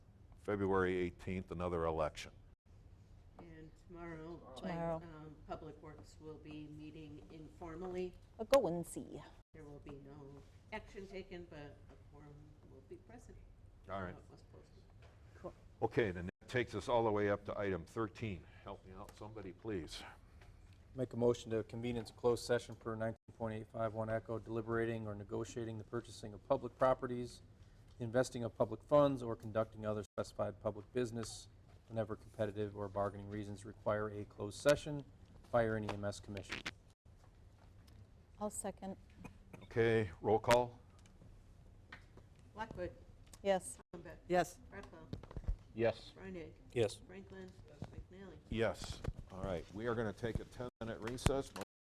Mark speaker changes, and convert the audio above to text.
Speaker 1: February 18th, another election.
Speaker 2: And tomorrow, like,
Speaker 3: Tomorrow.
Speaker 2: um, Public Works will be meeting informally.
Speaker 3: But go and see.
Speaker 2: There will be no action taken, but a quorum will be present.
Speaker 1: All right.
Speaker 2: How it was posted.
Speaker 1: Okay, then that takes us all the way up to item 13. Help me out, somebody, please.
Speaker 4: Make a motion to convene into closed session per 19.851 Echo deliberating or negotiating the purchasing of public properties, investing of public funds, or conducting other specified public business whenever competitive or bargaining reasons require a closed session. Fire and EMS Commission.
Speaker 3: I'll second.
Speaker 1: Okay, roll call?
Speaker 2: Blackwood,
Speaker 3: Yes.
Speaker 2: Combeck,
Speaker 5: Yes.
Speaker 2: Rockwell,
Speaker 1: Yes.
Speaker 2: Reinig,
Speaker 4: Yes.
Speaker 2: Franklin, McNally.
Speaker 1: Yes. All right, we are going to take a 10-minute recess.